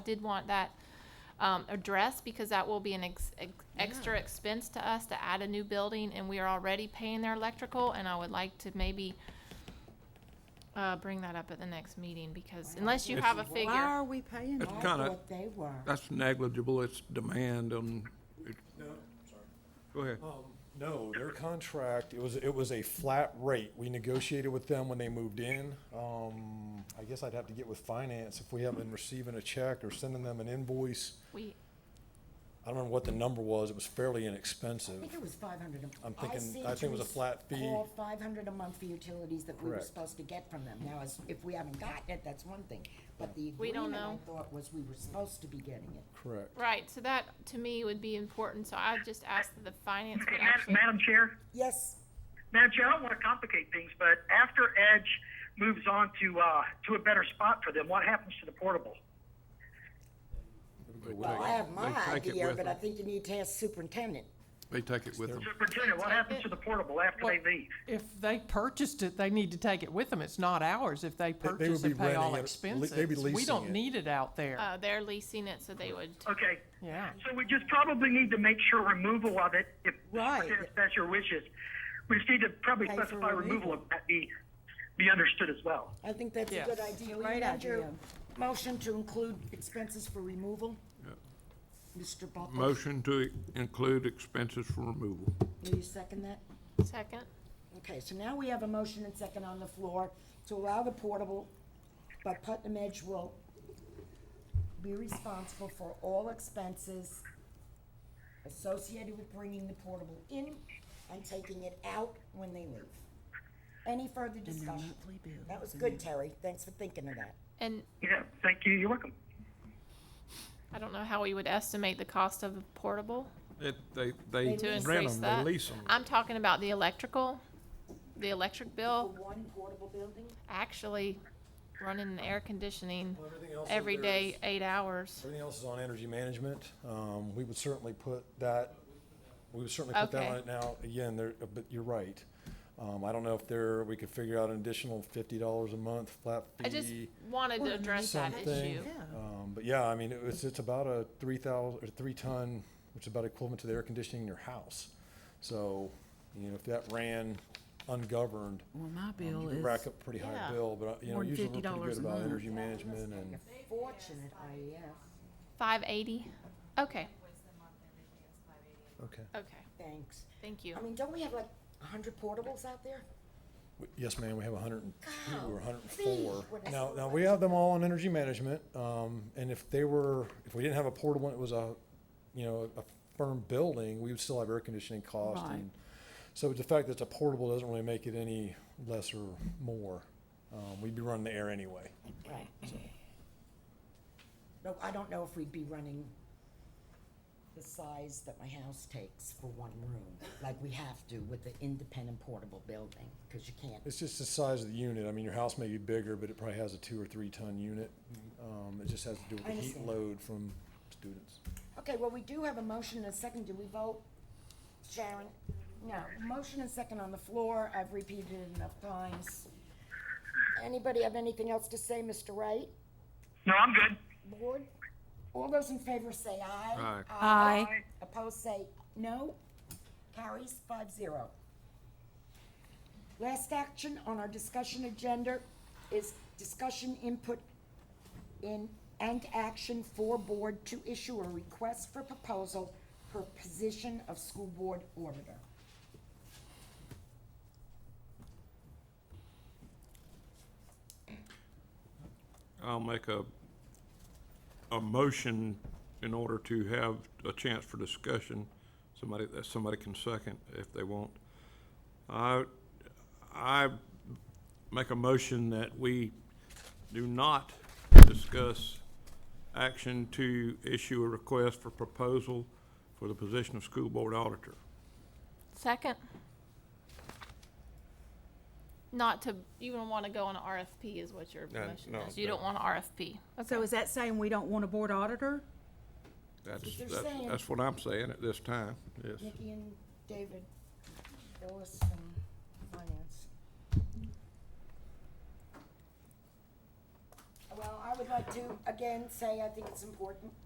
did want that um, addressed because that will be an ex- ex- extra expense to us to add a new building, and we are already paying their electrical, and I would like to maybe uh, bring that up at the next meeting, because unless you have a Why figure. are we paying It's them? kind I of, thought they were. that's negligible, it's demand on, it- No, sorry. Oh. go ahead. No, their contract, it was, it was a flat rate. We negotiated with them when they moved in. Um, I guess I'd have to get with finance if we haven't been receiving a check or sending them an invoice. We, I don't remember what the number was. It was fairly I inexpensive. think it was five hundred. I'm thinking- I think it was a flat fee. Five hundred a month for utilities that we were Correct. supposed to get from them. Now, as, if we haven't gotten it, that's one thing, but the We don't agreement I know. thought was we were supposed to be getting it. Correct. right, so that, to me, would be important, so I would just ask that the finance would Hey, Madam- actually. Madam Chair, Yes, Madam Chair, I don't want to complicate things, but after Edge moves on to, uh, to a better spot for them, what happens to the portable? well, I have my They take it idea, with but I them. think you need to ask superintendent. They take it with them. Superintendent, what happens to the portable after they leave? If they purchased it, they need to take it with them. It's not ours if they would purchase be and pay renting it. all Le- expenses. they'd be We leasing don't it. need it out there. Uh, they're leasing it, so they would, Okay. Yeah. So we just probably need to make sure removal of it, if Right. if that's your wishes. We just need to probably Pay for specify removal removal. of that be, be understood as well. I think that's a Yes. good idea. Will you Great amend your idea. Motion to include expenses for removal? Mr. Buckles? Motion to include expenses for removal. Will you second that? second, Okay, so now we have a motion and second on the floor to allow the portable, but Putnam Edge will be responsible for all expenses associated with bringing the portable in and taking it out when they leave. Any further discussion? That was good, Terry. Thanks for thinking of that. and Yeah, thank you. You're welcome. I don't know how we would estimate the cost of a portable. It, they, they to rent increase them, that. they lease them. I'm talking about the electrical, the electric bill, One portable building? actually running an air conditioning everything else is every theirs. day, eight hours. Everything else is on energy management. Um, we would certainly put that, we would certainly put that on Okay. it now. Again, there, but you're right. Um, I don't know if there, we could figure out an additional fifty dollars a month flat fee. I just wanted to address that something. issue. Um, but yeah, I mean, it was, it's about a three thousand, or three ton, which is about equivalent to the air conditioning in your house. So, you know, if that ran ungoverned, um, Well, my you bill could is, rack up a pretty Yeah. high bill, but, uh, you know, More than usually we're pretty $50 good a about month. energy management and, Fortunate, IEF. Five eighty? Okay, okay. okay, Thanks. thank you. I mean, don't we have like a hundred portables out there? W- Yes, ma'am, we have hundred and two or hundred and Golly, four. when I Now, saw now, that- we have them all on energy management, um, and if they were, if we didn't have a portable, and it was a, you know, a firm building, we would still have air conditioning cost. Right. and- So the fact that it's a portable doesn't really make it any less or more. Um, we'd be running the air anyway. Right. No, I don't know if we'd be running the size that my house takes for one room, like we have to with the independent portable building, because you can't. It's just the size of the unit. I mean, your house may be bigger, but it probably has a two or three ton unit. Um, it just has to do with I the heat understand. load from students. Okay, well, we do have a motion and a second. Do we vote? Sharon? No, motion and second on the floor. I've repeated it enough times. Anybody have anything else to say, Mr. Wright? No, I'm good. Board? All those in favor say aye. Aye. Aye. Opposed say no. Carries five zero. Last action on our discussion agenda is discussion input in and action for board to issue a request for proposal for position of school board auditor. I'll make a, a motion in order to have a chance for discussion. Somebody, that somebody can second if they want. I, I make a motion that we do not discuss action to issue a request for proposal for the position of school board auditor. Second? Not to, you don't wanna go on an RFP is what your No, motion Uh, no, is. You don't no. want an RFP. so is that saying we don't want a board auditor? That's, what they're that's, saying. that's what I'm saying at this time, yes. Nikki and David, Phyllis and Finance. Well, I would like to, again, say I think it's important